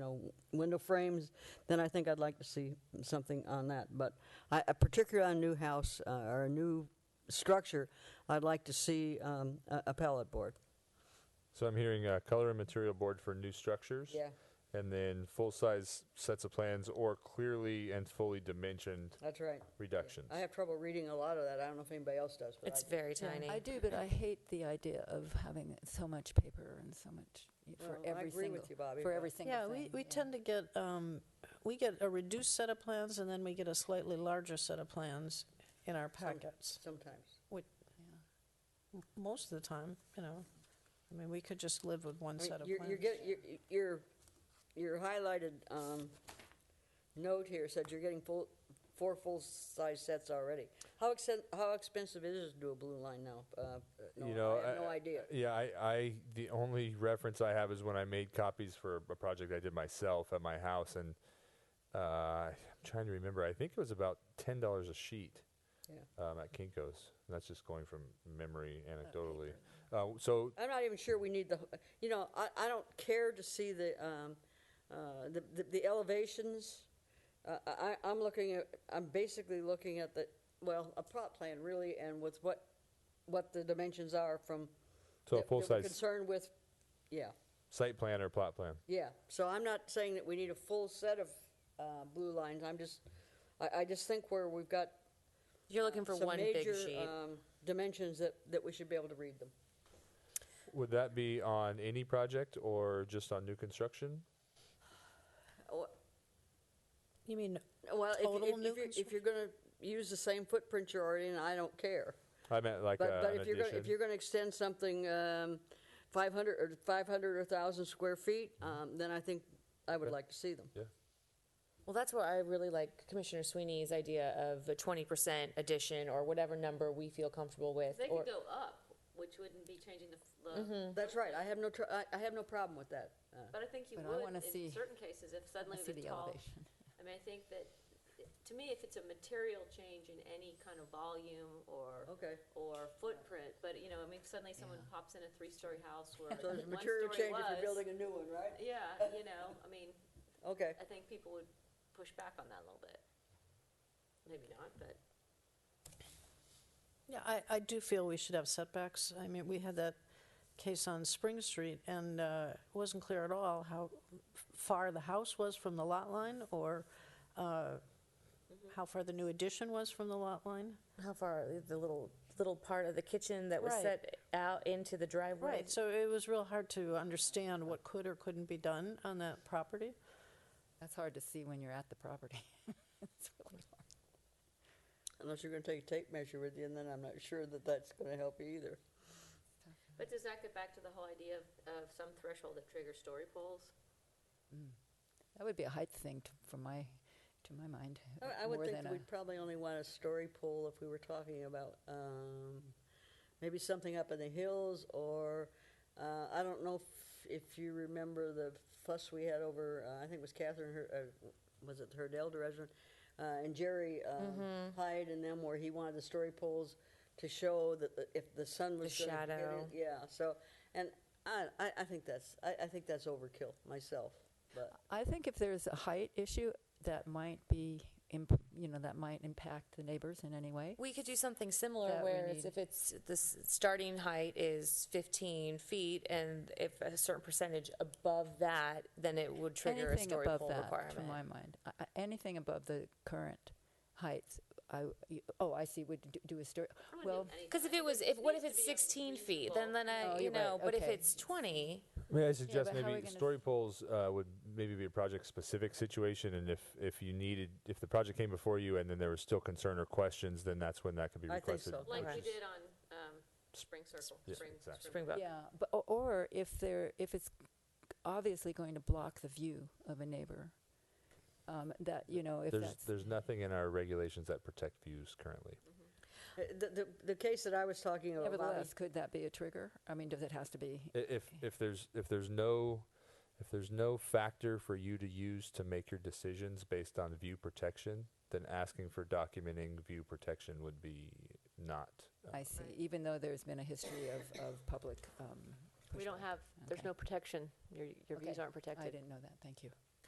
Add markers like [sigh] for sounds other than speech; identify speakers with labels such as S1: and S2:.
S1: know, window frames, then I think I'd like to see something on that. But I, uh, particularly on a new house uh, or a new structure, I'd like to see um, a a pallet board.
S2: So I'm hearing uh, color and material board for new structures.
S1: Yeah.
S2: And then full-size sets of plans or clearly and fully dimensioned
S1: That's right.
S2: reductions.
S1: I have trouble reading a lot of that. I don't know if anybody else does, but I
S3: It's
S1: do.
S3: very
S4: Yeah,
S3: tiny.
S4: I do, but I hate the idea of having so much paper and so much y- for
S1: Well, I
S4: every
S1: agree with
S4: single,
S1: you, Bobby,
S4: for
S1: but-
S4: every single
S5: Yeah,
S4: thing.
S5: we, we tend to get, um, we get a reduced set of plans and then we get a slightly larger set of plans in our packets,
S1: Sometimes.
S5: which, m- most of the time, you know. I mean, we could just live with one
S1: I mean,
S5: set of
S1: you're-
S5: plans.
S1: You're getting, you're- you're, your highlighted um, note here said you're getting full, four full-size sets already. How exten, how expensive it is to do a blue line now? Uh, no,
S2: you know,
S1: I have no idea.
S2: Yeah, I, I the only reference I have is when I made copies for a project I did myself at my house, and uh, I'm trying to remember. I think it was about ten dollars a sheet
S1: Yeah.
S2: um, at Kinkos. And that's just going from memory, anecdotally. Uh, so
S1: I'm not even sure we need the, you know, I, I don't care to see the, um, uh, the, the- the elevations. Uh, I, I'm looking at, I'm basically looking at the, well, a plot plan really, and with what, what the dimensions are from. that- that
S2: So a
S1: we're
S2: full-size-
S1: Concerned with, yeah,
S2: site plan or plot plan.
S1: yeah. So I'm not saying that we need a full set of, uh, blue lines. I'm just, I, I just think where we've got.
S3: You're looking for
S1: some
S3: one big
S1: major,
S3: sheet.
S1: um, Dimensions that, that we should be able to read them.
S2: Would that be on any project or just on new construction?
S1: Or-
S5: You mean,
S1: Oh, Well, if,
S5: Total
S1: if-
S5: new
S1: if, you're, if
S5: construction?
S1: you're gonna use the same footprint you're already in, I don't care.
S2: I meant like
S1: But,
S2: uh,
S1: but
S2: an
S1: if you're gonna, if
S2: addition.
S1: you're gonna extend something, um, five hundred, or five hundred or thousand square feet, um, then I think I would like to see them.
S2: yeah.
S3: Well, that's what I really like Commissioner Sweeney's idea of a 20% addition or whatever number we feel comfortable with.
S6: They
S3: or-
S6: could go up, which wouldn't be changing the, f- the
S1: That's right, I have no, tr- I, I have no problem with that. Uh,
S6: but I think you
S4: But I
S6: would
S4: wanna see-
S6: in certain cases if suddenly
S4: see the
S6: the tall.
S4: elevation.
S6: I mean, I think that, it- to me, if it's a material change in any kind of volume or.
S1: Okay.
S6: Or footprint, but you know, I mean, if suddenly someone pops in a three-story house where
S1: [laughs] So there's
S6: one
S1: material
S6: story
S1: change if you're
S6: was.
S1: building a new one, right?
S6: Yeah, you know, I mean,
S1: Okay,
S6: I think people would push back on that a little bit. Maybe not, but.
S5: yeah, I, I do feel we should have setbacks. I mean, we had that case on Spring Street and uh, it wasn't clear at all how f- far the house was from the lot line or uh, how far the new addition was from the lot line.
S3: How far the little little part of the kitchen that was
S5: Right.
S3: set out into the driveway?
S5: Right, so it was real hard to understand what could or couldn't be done on that property.
S4: That's hard to see when you're at the property. [laughs] It's really hard.
S1: unless you're gonna take a tape measure with you, and then I'm not sure that that's gonna help you either.
S6: But does that get back to the whole idea of, of some threshold that triggers story polls?
S1: Mm.
S4: That would be a height thing t- from my, to my mind.
S1: I-
S4: uh,
S1: Oh, I would
S4: more
S1: think
S4: than
S1: that
S4: a-
S1: we'd probably only want a story pool if we were talking about um, maybe something up in the hills or, uh, I don't know if, if you remember the fuss we had over, uh, I think it was Catherine, Her- uh, was it Herdell, the resident? Uh, and Jerry um,
S4: Mm-hmm.
S1: Hyde and them where he wanted the story poles to show that the- if the sun was
S3: The
S1: gonna hit
S3: shadow.
S1: it- Yeah, so, and I, I, I think that's, I, I think that's overkill myself, but. uh,
S4: I think if there's a height issue, that might be, imp- you know, that might impact the neighbors in any way.
S3: We could do something similar
S4: That we
S3: where it's-
S4: need.
S3: if it's, the s- starting height is 15 feet and if a certain percentage above that, then it would trigger a
S4: anything
S3: story
S4: above
S3: pole
S4: that,
S3: requirement.
S4: to my mind, I- I- anything above the current heights, I y oh I see would d- do a story.
S6: wouldn't do
S4: Well,
S6: anything.
S3: Because if
S6: I
S3: it
S6: think
S3: was,
S6: it
S3: if, what if
S6: needs to
S3: it's
S6: be a
S3: 16 feet, then,
S6: reasonable-
S3: then
S4: Oh,
S3: I, you
S4: you're right,
S3: know, but if
S4: okay.
S3: it's 20,
S2: May I suggest
S4: but how are we
S2: maybe
S4: gonna
S2: story polls uh, would maybe be a project-specific situation, and if, if you needed, if the project came before you and then there was still concern or questions, then that's when that could be
S1: I think
S2: requested.
S1: so.
S2: which
S6: Like we
S2: is-
S6: did on, um, Spring Circle,
S2: Yeah,
S6: Spring,
S2: exactly.
S3: spring buck.
S4: yeah, but o- or if there if it's obviously going to block the view of a neighbor, um, that you know if
S2: There's,
S4: that's
S2: there's nothing in our regulations that protect views currently.
S1: Uh, The, the, the case that I was talking about, Bobby,
S4: nevertheless could that be a trigger? I mean, does it has to be?
S2: I- If, if there's, if there's no, if there's no factor for you to use to make your decisions based on view protection, then asking for documenting view protection would be not. uh,
S4: I see. Even though there's been a history of of public. Um,
S7: We don't
S4: pushback.
S7: have, there's
S4: Okay.
S7: no protection. Your, your views
S4: Okay.
S7: aren't protected.
S4: I didn't know that. Thank you.